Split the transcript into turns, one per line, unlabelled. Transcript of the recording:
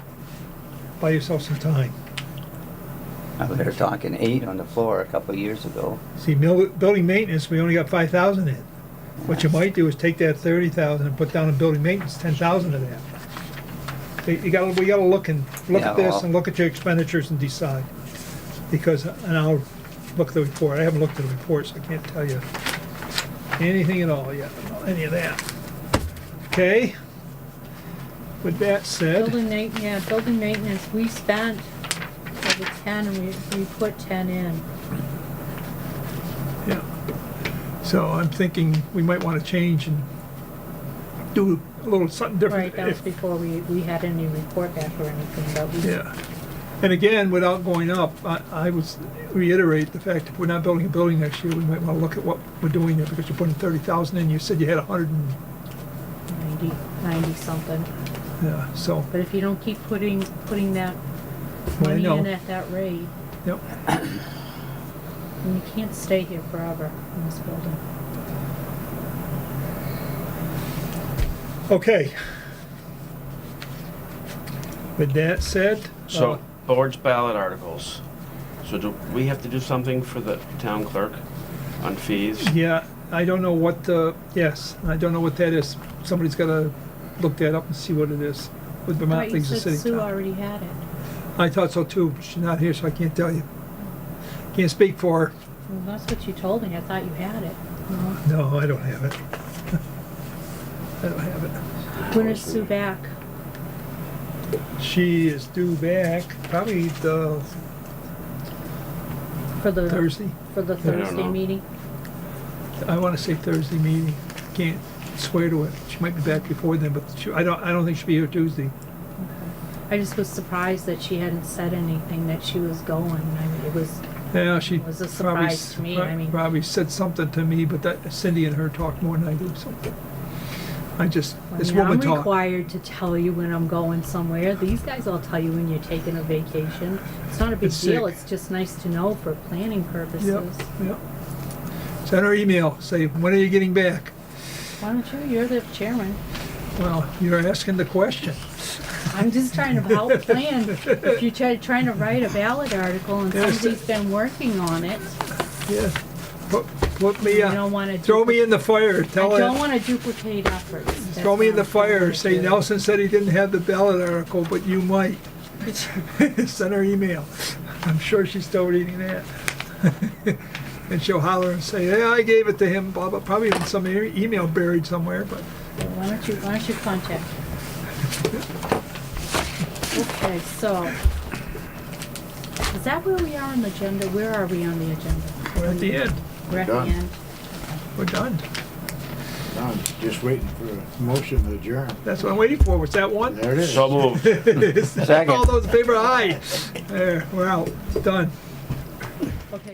buy yourself some time.
I was there talking eight on the floor a couple of years ago.
See, mil- building maintenance, we only got five thousand in. What you might do is take that thirty thousand and put down in building maintenance, ten thousand of that. You- You gotta, we gotta look and, look
Yeah,
at this
well-
and look at your expenditures and decide. Because, and I'll look at the report, I haven't looked at the report, so I can't tell you anything at all yet, about any of that. Okay? With that said,
Building ma- yeah, building maintenance, we spent over ten, and we, we put ten in.
yeah. So I'm thinking we might wanna change and do a little something different.
Right, that
if-
was before we, we had any report back or anything, but we.
Yeah. And again, without going up, I, I would reiterate the fact, if we're not building a building next year, we might wanna look at what we're doing there, because you're putting thirty thousand in, you said you had a hundred and,
Ninety, ninety something.
yeah, so,
But if you don't keep putting, putting that
Well, I
money in
know.
at that rate,
yep.
then you can't stay here forever in this building.
Okay. With that said. uh,
So, board's ballot articles. So do we have to do something for the town clerk on fees?
Yeah, I don't know what, uh, yes, I don't know what that is. Somebody's gotta look that up and see what it is with
But
Vermont
you
Leagues of
said
City.
Sue
Council.
already had it.
I thought so too, but she's not here, so I can't tell you. Can't speak for her.
Well, that's what you told me, I thought you had it. No.
No, I don't have it. I don't have it.
When is Sue back?
She is due back probably the
For the.
Thursday.
For the
don't
Thursday
know.
meeting?
I want to say Thursday meeting. Can't swear to it. She might be back before then, but she, I don't, I don't think she'll be here Tuesday.
I just was surprised that she hadn't said anything that she was going. I mean, it was,
Yeah, she
It was a
probably,
surprise
s-
to me,
prob-
I mean-
probably said something to me, but that Cindy and her talked more than I do, so. I just,
I
this
mean, I'm
woman talk.
required to tell you when I'm going somewhere. These guys all tell you when you're taking a vacation. It's not a big
It's
deal,
sick.
it's just nice to know for planning
Yep,
purposes.
yep. Send her email, say, when are you getting back?
Why don't you, you're the chairman.
Well, you're asking the question.
I'm just trying to help plan. If you're try- trying to write a ballot article and
Yes.
somebody's been working on it,
Yeah, put, put me,
You
uh,
don't wanna
throw me
duplicate-
in the fire,
I
tell
don't
it,
wanna duplicate efforts. That's
throw me in the
what I'm trying
fire,
to
say
do.
Nelson said he didn't have the ballot article, but you might. Send her email, I'm sure she's still reading that. And she'll holler and say, yeah, I gave it to him, blah, blah, probably in some e- email buried somewhere, but,
Why don't you, why don't you contact? her? Okay, so, is that where we are on the agenda? Where are we on the agenda?
we're at the end,
We're at the
Done.
end.
we're done.
I'm just waiting for a motion to adjourn.
That's what I'm waiting for, was that one?
There it is.
So moved.
All those in favor, aye. There, we're out, done.